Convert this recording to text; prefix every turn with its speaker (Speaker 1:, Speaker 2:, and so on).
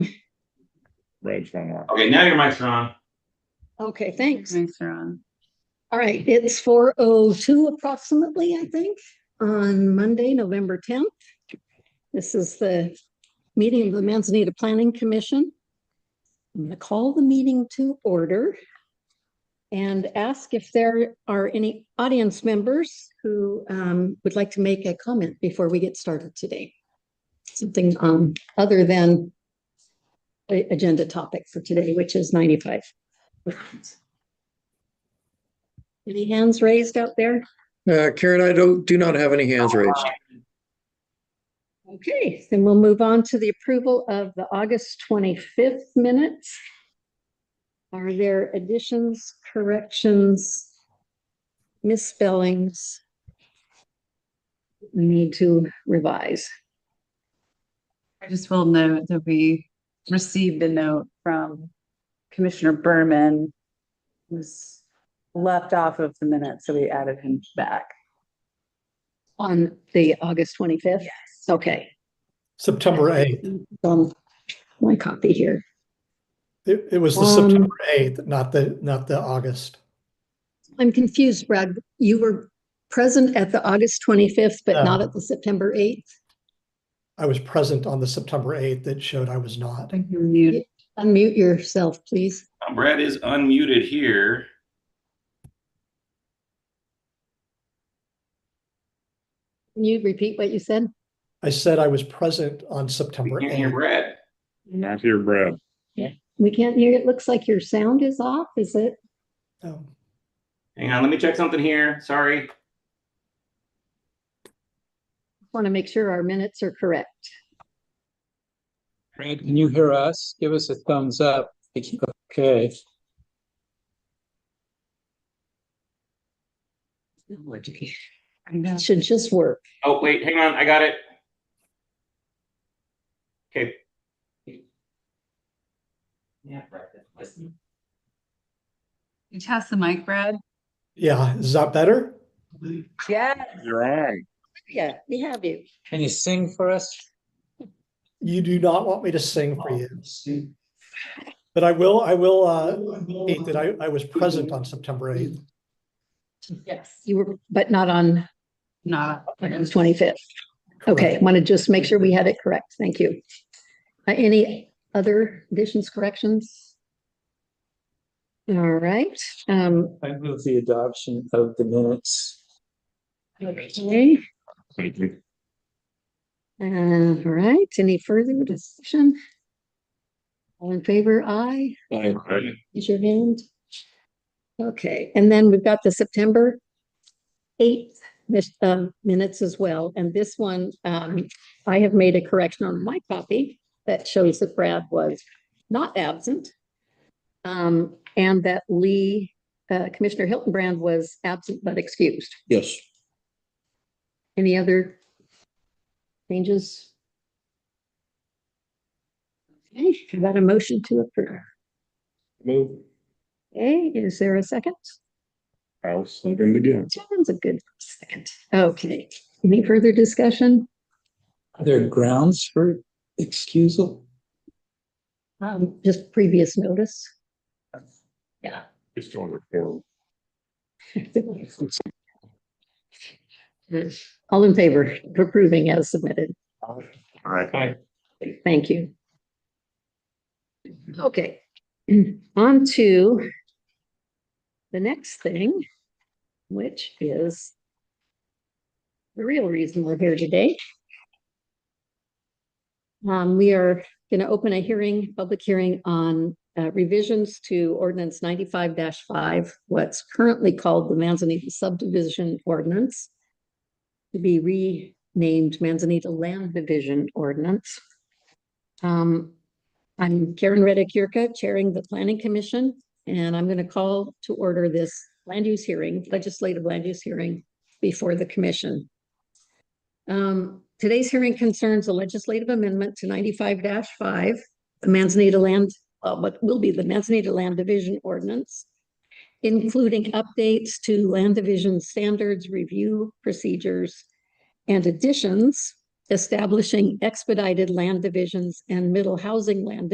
Speaker 1: Red's not on.
Speaker 2: Okay, now your mic's on.
Speaker 3: Okay, thanks.
Speaker 4: Thanks, Ron.
Speaker 3: All right, it's four oh two approximately, I think, on Monday, November tenth. This is the meeting of the Manzanita Planning Commission. I'm gonna call the meeting to order and ask if there are any audience members who um would like to make a comment before we get started today. Something um other than the agenda topic for today, which is ninety-five. Any hands raised out there?
Speaker 5: Uh, Karen, I don't, do not have any hands raised.
Speaker 3: Okay, then we'll move on to the approval of the August 25th minutes. Are there additions, corrections, misspellings? We need to revise.
Speaker 4: I just will note that we received a note from Commissioner Berman. who Was left off of the minute, so we added him back.
Speaker 3: On the August 25th? Yes. Okay,
Speaker 6: September 8th.
Speaker 3: um, my copy here.
Speaker 6: It, it was the
Speaker 3: Um,
Speaker 6: September 8th, not the, not the August.
Speaker 3: I'm confused, Brad. You were present at the August 25th, but not at the September 8th?
Speaker 6: I was present on the September 8th that showed I was not.
Speaker 4: Thank you, Mute.
Speaker 3: Unmute yourself, please.
Speaker 2: Uh, Brad is unmuted here.
Speaker 3: Can you repeat what you said?
Speaker 6: I said I was present on September
Speaker 2: We can't hear
Speaker 6: 8th.
Speaker 2: Brad.
Speaker 1: Not here, Brad.
Speaker 3: We can't hear, it looks like your sound is off, is it?
Speaker 6: Um,
Speaker 2: Hang on, let me check something here. Sorry.
Speaker 3: Want to make sure our minutes are correct.
Speaker 7: Brad, can you hear us? Give us a thumbs up. Okay,
Speaker 4: I know.
Speaker 3: It Should just work.
Speaker 2: Oh, wait, hang on, I got it. Okay. Yeah, Brad. that's-
Speaker 4: You test the mic, Brad?
Speaker 6: Yeah, is that better?
Speaker 4: Yeah.
Speaker 1: You're on.
Speaker 3: Yeah, we have you.
Speaker 7: can you sing for us?
Speaker 6: You do not want me to sing for you. But I will, I will, uh, state that I, I was present on September 8th.
Speaker 4: Yes.
Speaker 3: You were, but not on
Speaker 4: Not.
Speaker 3: August 25th. Okay, want to just make sure we had it correct. Thank you. Uh, Any other additions, corrections? All right. um,
Speaker 7: I move the adoption of the minutes.
Speaker 3: Okay,
Speaker 1: Thank you.
Speaker 3: uh, all right. Any further discussion? All in favor, aye?
Speaker 1: Aye.
Speaker 3: Is your hand. Okay, and then we've got the September eighth mis- um, minutes as well. And this one, um, I have made a correction on my copy that shows that Brad was not absent. Um, and that Lee, uh, Commissioner Hiltonbrand was absent but excused.
Speaker 5: Yes.
Speaker 3: Any other changes? Okay, we got a motion to approve.
Speaker 1: Move.
Speaker 3: Okay, is there a second?
Speaker 1: I'll second again.
Speaker 3: Sounds a good second. Okay, any further discussion?
Speaker 7: Are there grounds for excusal?
Speaker 3: Um, just previous notice? Yeah.
Speaker 1: It's going to record.
Speaker 3: All in favor of approving as submitted?
Speaker 1: All right.
Speaker 3: Thank you. Okay, on to the next thing, which is the real reason we're here today. Um, we are going to open a hearing, public hearing on uh, revisions to ordinance ninety-five five, what's currently called the Manzanita subdivision ordinance to be renamed Manzanita Land Division Ordinance. Um, I'm Karen Reddick Yurka, chairing the Planning Commission, and I'm going to call to order this land use hearing, legislative land use hearing before the commission. Um, today's hearing concerns a legislative amendment to ninety-five five, the Manzanita Land, uh, what will be the Manzanita Land Division Ordinance, including updates to land division standards, review procedures, and additions establishing expedited land divisions and middle housing land